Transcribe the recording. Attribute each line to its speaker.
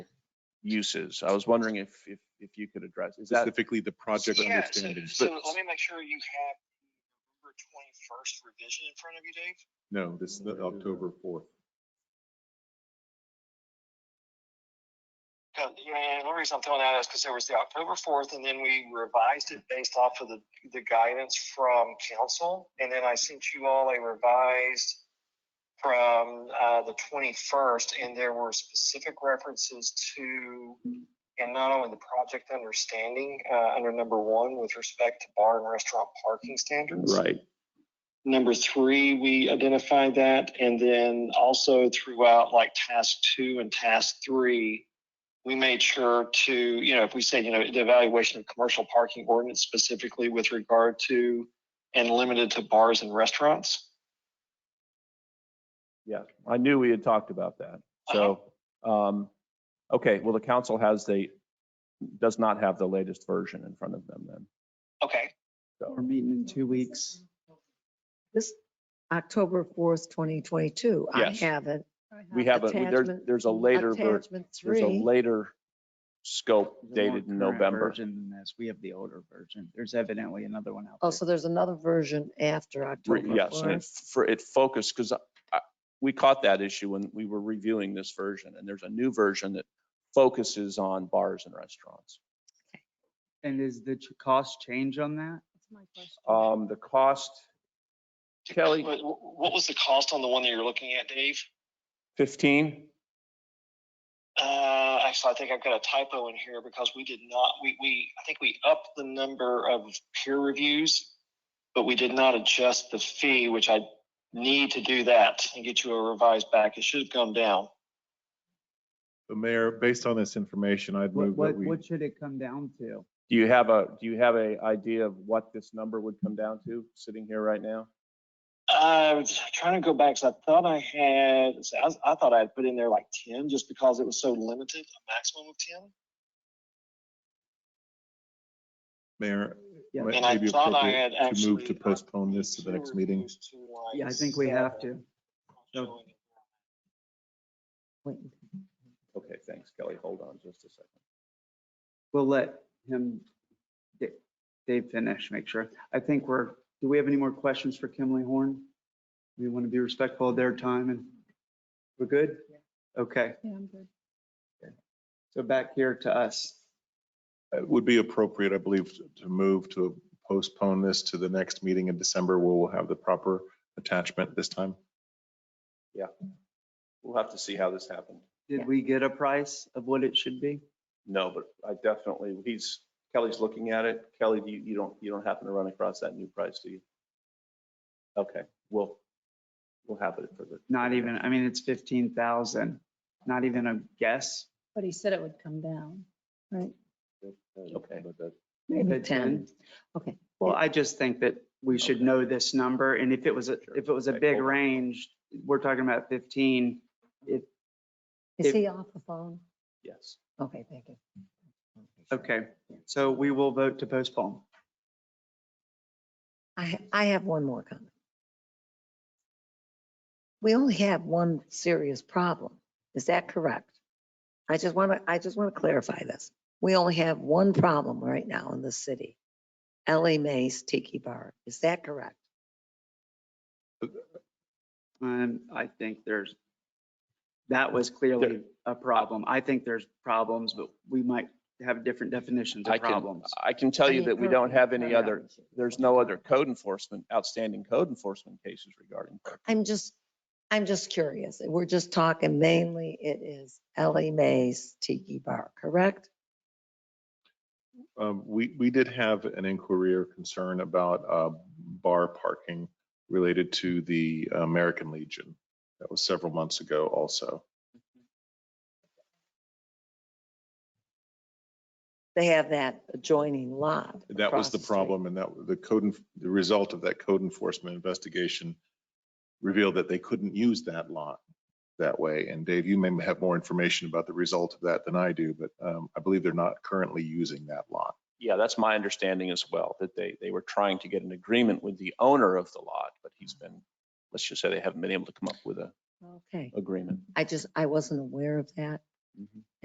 Speaker 1: uses. I was wondering if, if, if you could address, is that,
Speaker 2: specifically the project
Speaker 3: Yeah, so-
Speaker 2: understanding.
Speaker 3: So let me make sure you have November twenty-first revision in front of you, Dave.
Speaker 2: No, this is the October fourth.
Speaker 3: Because, yeah, the only reason I'm throwing that is because there was the October fourth, and then we revised it based off of the, the guidance from council. And then I sent you all a revised from, uh, the twenty-first, and there were specific references to, and not only the project understanding, uh, under number one with respect to bar and restaurant parking standards.
Speaker 1: right,
Speaker 3: Number three, we identified that, and then also throughout like task two and task three, we made sure to, you know, if we said, you know, the evaluation of commercial parking ordinance specifically with regard to and limited to bars and restaurants.
Speaker 1: yeah. I knew we had talked about that.
Speaker 4: Uh-huh.
Speaker 1: So, um, okay, well, the council has the, does not have the latest version in front of them then.
Speaker 3: Okay,
Speaker 4: We're meeting in two weeks.
Speaker 5: This October fourth, twenty twenty-two, I
Speaker 1: Yes.
Speaker 5: have it.
Speaker 1: We have a, there's,
Speaker 5: Attachment-
Speaker 1: there's a later, ver-
Speaker 5: Attachment
Speaker 1: there's a
Speaker 5: three.
Speaker 1: later scope
Speaker 4: There's a more
Speaker 1: dated in
Speaker 4: current
Speaker 1: November.
Speaker 4: Version than this. We have the older version. There's evidently another one out
Speaker 5: Oh,
Speaker 4: there.
Speaker 5: so there's another version after
Speaker 1: Re-
Speaker 5: October
Speaker 1: Yes, and it,
Speaker 5: fourth.
Speaker 1: for, it focused, because we caught that issue when we were reviewing this version, and there's a new version that focuses on bars and restaurants.
Speaker 4: And is the ch- cost change on that?
Speaker 1: Um, the cost, Kelly.
Speaker 3: What, what was the cost on the one that you're looking at, Dave?
Speaker 1: fifteen?
Speaker 3: Uh, actually, I think I've got a typo in here because we did not, we, we, I think we upped the number of peer reviews, but we did not adjust the fee, which I need to do that and get you a revised back. It should have gone down.
Speaker 2: The mayor, based on this information, I'd
Speaker 4: What,
Speaker 2: move
Speaker 4: what,
Speaker 2: that we,
Speaker 4: what should it come down to?
Speaker 1: Do you have a, do you have a idea of what this number would come down to, sitting here right now?
Speaker 3: I was Uh, trying to go back because I thought I had, so I, was- I thought I had put in there like ten just because it was so limited, a maximum of ten.
Speaker 2: mayor,
Speaker 4: Yeah.
Speaker 2: might
Speaker 3: And I
Speaker 2: maybe
Speaker 3: thought I
Speaker 2: appropriate
Speaker 3: had
Speaker 2: to
Speaker 3: actually.
Speaker 2: move to postpone this to the
Speaker 3: peer
Speaker 2: next meeting.
Speaker 3: reviews to, like,
Speaker 4: Yeah, I think we have to.
Speaker 3: seven.
Speaker 4: So-
Speaker 5: Wait.
Speaker 1: Okay, thanks, Kelly. Hold on just a second.
Speaker 4: We'll let him, Da- Dave finish, make sure. I think we're, do we have any more questions for Kimley Horn? We want to be respectful of their time and we're good? Okay,
Speaker 6: Yeah, I'm good.
Speaker 4: so back here to us.
Speaker 2: It would be appropriate, I believe, to move to postpone this to the next meeting in December where we'll have the proper attachment this time.
Speaker 1: We'll have to see how this happened.
Speaker 4: Did we get a price of what it should be?
Speaker 1: No, but I definitely, he's, Kelly's looking at it. Kelly, do you, you don't, you don't happen to run across that new price, do you? Okay, we'll, we'll have it for the.
Speaker 4: Not even, I mean, it's 15,000, not even a guess.
Speaker 6: But he said it would come down.
Speaker 1: Okay.
Speaker 5: Maybe
Speaker 4: But
Speaker 5: ten.
Speaker 4: then-
Speaker 5: Okay.
Speaker 4: Well, I just think that we should
Speaker 1: Okay.
Speaker 4: know this number, and if it was, a
Speaker 1: Sure.
Speaker 4: if it was a
Speaker 1: Okay,
Speaker 4: big
Speaker 1: hold on.
Speaker 4: range, we're talking about 15.
Speaker 5: Is
Speaker 4: If-
Speaker 5: he off the phone?
Speaker 1: Yes.
Speaker 5: Okay, thank you.
Speaker 4: Okay, so we will vote to postpone.
Speaker 5: I, I have one more comment. We only have one serious problem. Is that correct? I just want to, I just want to clarify this. We only have one problem right now in the city. LA Mays Tiki Bar. Is that correct?
Speaker 4: And I think there's, that was clearly a problem. I think there's problems, but we might have different definitions
Speaker 1: I
Speaker 4: of
Speaker 1: can,
Speaker 4: problems.
Speaker 1: I can tell
Speaker 5: I
Speaker 1: you
Speaker 5: mean,
Speaker 1: that we
Speaker 5: her-
Speaker 1: don't have any
Speaker 5: her
Speaker 1: other, there's no other code enforcement, outstanding code enforcement cases regarding.
Speaker 5: I'm just, I'm just curious. We're just talking mainly it is LA Mays Tiki Bar, correct?
Speaker 2: Um, we, we did have an inquiry or concern about, uh, bar parking related to the American Legion. That was several months ago also.
Speaker 5: They have that adjoining lot.
Speaker 2: That was
Speaker 5: across
Speaker 2: the
Speaker 5: street.
Speaker 2: problem and that the code, enf- the result of that code enforcement investigation revealed that they couldn't use that lot that way. And Dave, you may have more information about the result of that than I do, but um, I believe they're not currently using that lot.
Speaker 1: Yeah, that's my understanding as well, that they, they were trying to get an agreement with the owner of the lot, but he's been, let's just say they haven't been able to come up with a
Speaker 5: Okay.
Speaker 1: agreement.
Speaker 5: I just, I wasn't aware of that.